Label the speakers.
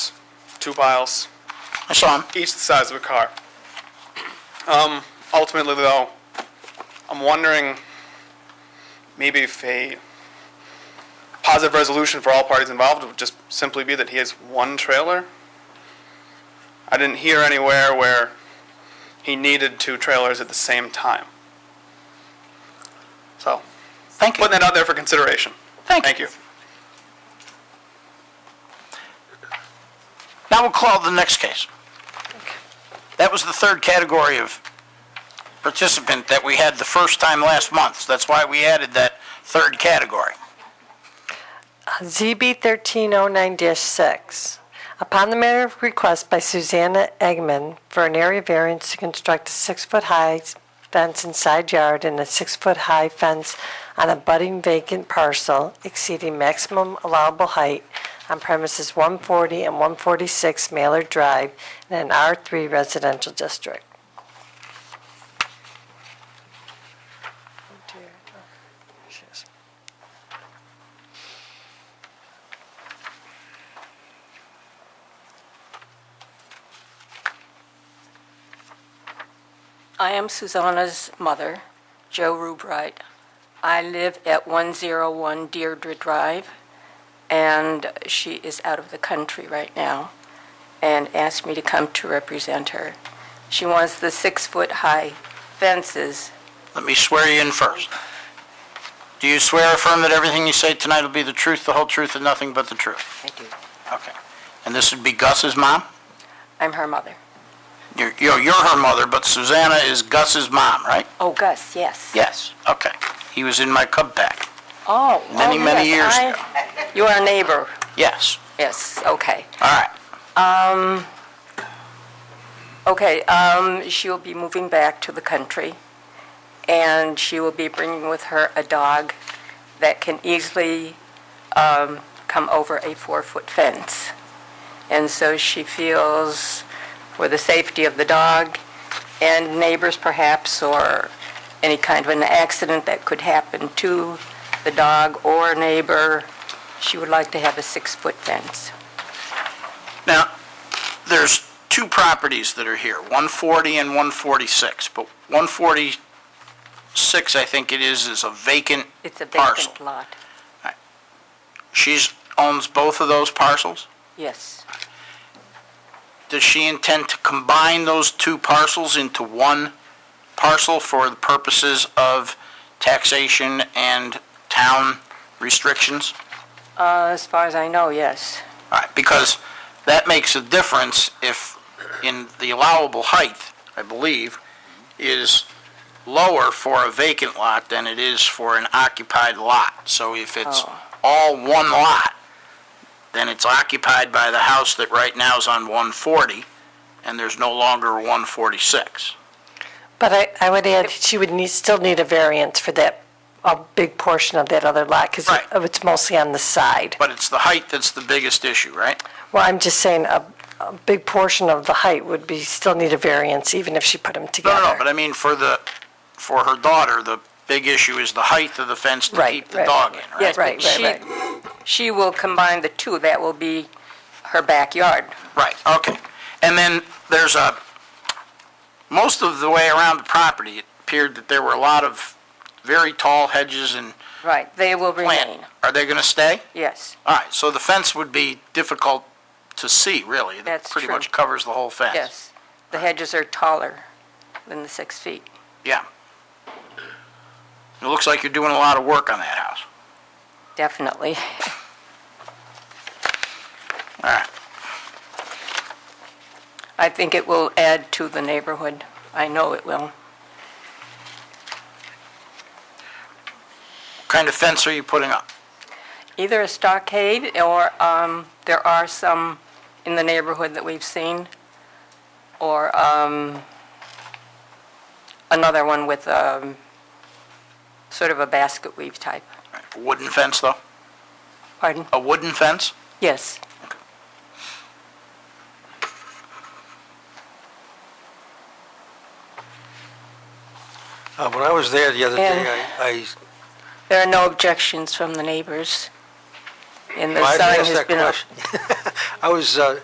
Speaker 1: two piles,
Speaker 2: I saw him.
Speaker 1: each the size of a car. Um, ultimately, though, I'm wondering maybe if a positive resolution for all parties involved would just simply be that he has one trailer. I didn't hear anywhere where he needed two trailers at the same time. So,
Speaker 2: Thank you.
Speaker 1: putting that out there for consideration. Thank you.
Speaker 2: Now we'll call the next case. That was the third category of participant that we had the first time last month. That's why we added that third category.
Speaker 3: ZB 1309-6. Upon the matter of request by Susanna Eggman for an area variance to construct a six-foot-high fence in side yard and a six-foot-high fence on a budding vacant parcel exceeding maximum allowable height on premises 140 and 146 Mailer Drive in an R3 residential district.
Speaker 4: I am Susanna's mother, Joe Rubright. I live at 101 Deirdre Drive, and she is out of the country right now and asked me to come to represent her. She wants the six-foot-high fences.
Speaker 2: Let me swear you in first. Do you swear or affirm that everything you say tonight will be the truth, the whole truth, and nothing but the truth?
Speaker 4: I do.
Speaker 2: Okay. And this would be Gus's mom?
Speaker 4: I'm her mother.
Speaker 2: You're, you're you're her mother, but Susanna is Gus's mom, right?
Speaker 4: Oh, Gus, yes.
Speaker 2: Yes. Okay. He was in my Cub pack.
Speaker 4: Oh,
Speaker 2: Many,
Speaker 4: oh,
Speaker 2: many
Speaker 4: yes,
Speaker 2: years
Speaker 4: I- You are a neighbor.
Speaker 2: Yes.
Speaker 4: Yes, okay.
Speaker 2: All right.
Speaker 4: Okay, um, she will be moving back to the country, and she will be bringing with her a dog that can easily, um, come over a four-foot fence. And so she feels for the safety of the dog and neighbors perhaps, or any kind of an accident that could happen to the dog or neighbor, she would like to have a six-foot fence.
Speaker 2: Now, there's two properties that are here, 140 and 146, but 146, I think it is, is a vacant
Speaker 4: It's a
Speaker 2: parcel.
Speaker 4: vacant lot.
Speaker 2: She's, owns both of those parcels?
Speaker 4: Yes,
Speaker 2: Does she intend to combine those two parcels into one parcel for the purposes of taxation and town restrictions?
Speaker 4: Uh, as far as I know, yes.
Speaker 2: All right, because that makes a difference if, in the allowable height, I believe, is lower for a vacant lot than it is for an occupied lot. So if it's
Speaker 4: Oh.
Speaker 2: all one lot, then it's occupied by the house that right now is on 140, and there's no longer 146.
Speaker 3: But I, I would add, she would need, still need a variance for that, a big portion of that other lot, because
Speaker 2: Right.
Speaker 3: it's mostly on the side.
Speaker 2: But it's the height that's the biggest issue, right?
Speaker 3: Well, I'm just saying, a, a big portion of the height would be, still need a variance, even if she put them
Speaker 2: No,
Speaker 3: together.
Speaker 2: no, no, but I mean, for the, for her daughter, the big issue is the height of the fence to
Speaker 3: Right,
Speaker 2: keep the
Speaker 3: right.
Speaker 2: dog in, right?
Speaker 4: Yes,
Speaker 3: Right,
Speaker 4: but
Speaker 3: right,
Speaker 4: she- She will combine the two, that will be her backyard.
Speaker 2: Right, okay. And then there's a, most of the way around the property, it appeared that there were a lot of very tall hedges and
Speaker 4: Right, they will
Speaker 2: plant.
Speaker 4: remain,
Speaker 2: Are they gonna stay?
Speaker 4: yes,
Speaker 2: All right, so the fence would be difficult to see, really. That
Speaker 4: That's
Speaker 2: Pretty
Speaker 4: true.
Speaker 2: much covers the whole fence.
Speaker 4: yes. The hedges are taller than the six feet.
Speaker 2: Yeah. It looks like you're doing a lot of work on that house.
Speaker 4: Definitely.
Speaker 2: All right.
Speaker 4: I think it will add to the neighborhood. I know it will.
Speaker 2: What kind of fence are you putting up?
Speaker 4: Either a stockade or um, there are some in the neighborhood that we've seen, or um, another one with um, sort of a basket weave type.
Speaker 2: A Wooden fence, though?
Speaker 4: Pardon?
Speaker 2: A wooden fence?
Speaker 4: Yes.
Speaker 5: Uh, When I was there the other
Speaker 4: And-
Speaker 5: day, I,
Speaker 4: There are no objections from the neighbors, and
Speaker 5: I-
Speaker 4: the
Speaker 5: well, I
Speaker 4: sign
Speaker 5: asked
Speaker 4: has
Speaker 5: that
Speaker 4: been up
Speaker 5: question. I was, uh,